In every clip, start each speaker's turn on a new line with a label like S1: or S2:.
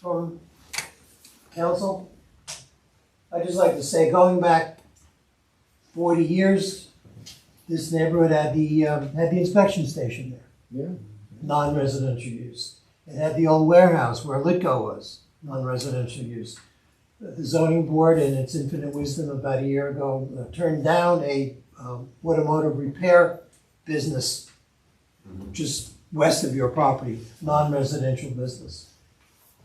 S1: from council? I'd just like to say, going back forty years, this neighborhood had the, um, had the inspection station there.
S2: Yeah.
S1: Non-residential use. It had the old warehouse where Litco was, non-residential use. The zoning board, in its infinite wisdom, about a year ago, uh, turned down a, um, automotive repair business just west of your property, non-residential business.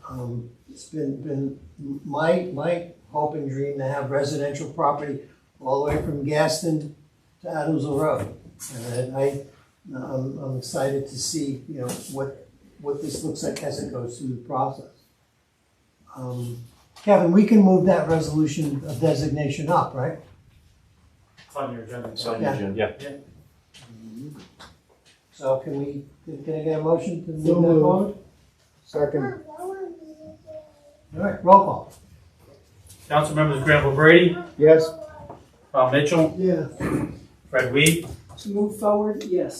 S1: Um, It's been, been my, my hope and dream to have residential property all the way from Gaston to Adamsville Road. And I, I'm, I'm excited to see, you know, what, what this looks like as it goes through the process. Um, Kevin, we can move that resolution of designation up, right?
S3: It's on your agenda.
S4: It's on the
S1: Yeah.
S4: agenda.
S1: So can we, can can I get a motion to move
S2: So
S1: that
S2: moved.
S1: forward?
S2: Second,
S1: All right, roll call.
S3: Council members Granville Brady,
S2: yes.
S3: Bob Mitchell,
S1: Yeah.
S3: Fred Weed,
S5: To move forward, yes.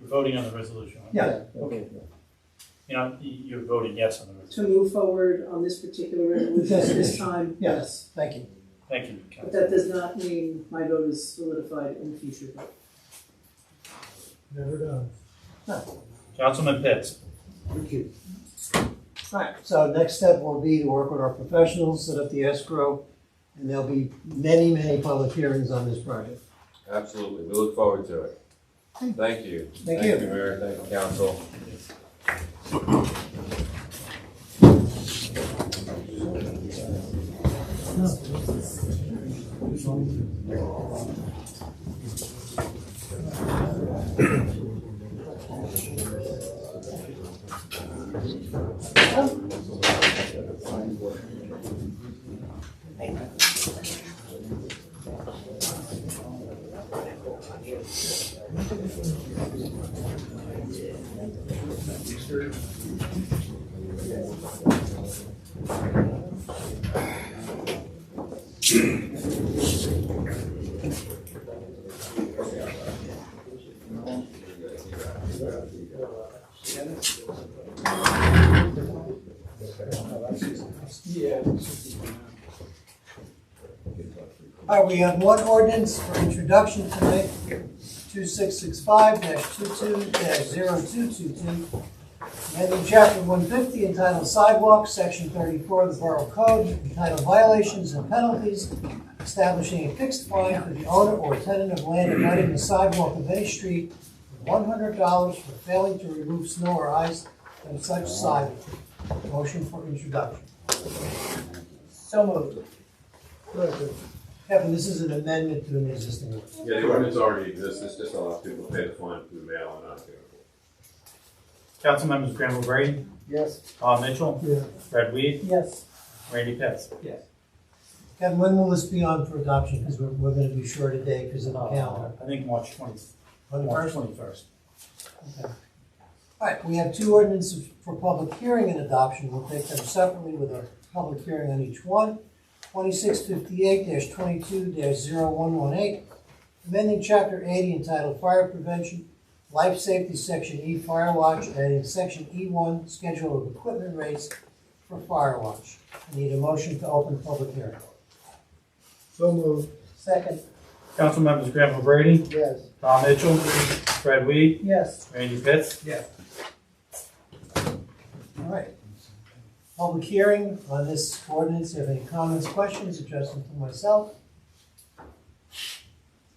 S3: you're voting on the resolution. right?
S1: Yeah.
S2: Okay.
S3: You know, you- you're voting yes on the resolution.
S5: To move forward on this particular resolution at this time,
S1: Yes.
S5: yes.
S1: Thank you.
S3: Thank you,
S5: But
S3: Council.
S5: that does not mean my vote is solidified in the future. vote.
S1: Never done.
S3: Councilman Pitts,
S1: Right, so next step will be to work with our professionals, set up the escrow, and there'll be many, many public hearings on this project.
S6: Absolutely, we look forward to it. Thank you.
S1: Thank you.
S6: Mayor, thank you, council.
S1: All right, we have one ordinance for introduction tonight, two six six five 22 222 Amending chapter one fifty entitled Sidewalks, section thirty-four of the Borough Code, entitled Violations and Penalties, establishing a fixed fine for the owner or tenant of land abutting the sidewalk of any street, one hundred dollars for failing to remove snow or ice from such sidewalk. Motion for introduction. So moved. Kevin, this is an amendment to an existing one.
S6: Yeah, the ordinance already exists, it's just allows people to pay the fine through mail and not do it.
S3: Council members Granville Brady,
S2: Yes.
S3: Bob Mitchell,
S1: Yeah.
S3: Fred Weed,
S5: Yes.
S3: Randy Pitts.
S1: Kevin, when will this be on for adoption? Because we're, we're gonna be short today because of the calendar.
S3: I think March twenty,
S1: Uh, On the
S3: March
S1: first?
S3: twenty-first.
S1: All right, we have two ordinances for public hearing and adoption. We'll take them separately with a public hearing on each one. Twenty-six fifty-eight twenty-two 118 amending chapter eighty entitled Fire Prevention, Life Safety, Section E, Fire Watch, adding Section E one, Schedule of Equipment Rates for Fire Watch. I need a motion to open public hearing.
S2: So moved,
S1: Second.
S3: Council members Granville Brady,
S2: yes.
S3: Bob Mitchell, Fred Weed,
S5: Yes.
S3: Randy Pitts.
S1: All right. Public hearing on this ordinance, if any comments, questions, address them to myself.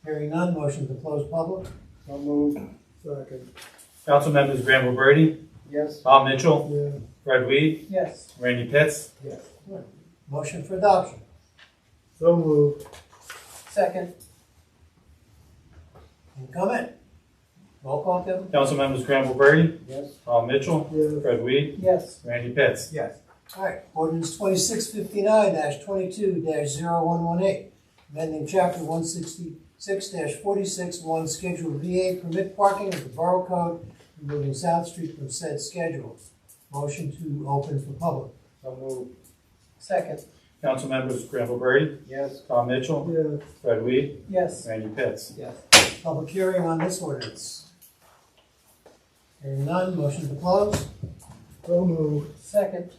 S1: Hearing none, motion to close public.
S2: So moved, second,
S3: Council members Granville Brady,
S2: yes.
S3: Bob Mitchell,
S2: Yeah.
S3: Fred Weed,
S5: Yes.
S3: Randy Pitts.
S1: Motion for adoption.
S2: So moved,
S5: Second.
S1: Any comment? Roll call, Kevin?
S3: Council members Granville Brady,
S2: yes.
S3: Bob Mitchell,
S2: Yeah.
S3: Fred Weed,
S5: Yes.
S3: Randy Pitts.
S1: All right, ordinance twenty-six fifty-nine twenty-two 118 amending chapter one sixty-six forty-six one, schedule VA, permit parking of the Borough Code, removing South Street from said schedule. Motion to open for public.
S2: So moved,
S5: Second.
S3: Council members Granville Brady,
S2: yes.
S3: Bob Mitchell,
S2: Yeah.
S3: Fred Weed,
S5: Yes.
S3: Randy Pitts.
S1: Public hearing on this ordinance. Hearing none, motion to close.
S7: So moved.
S2: Second.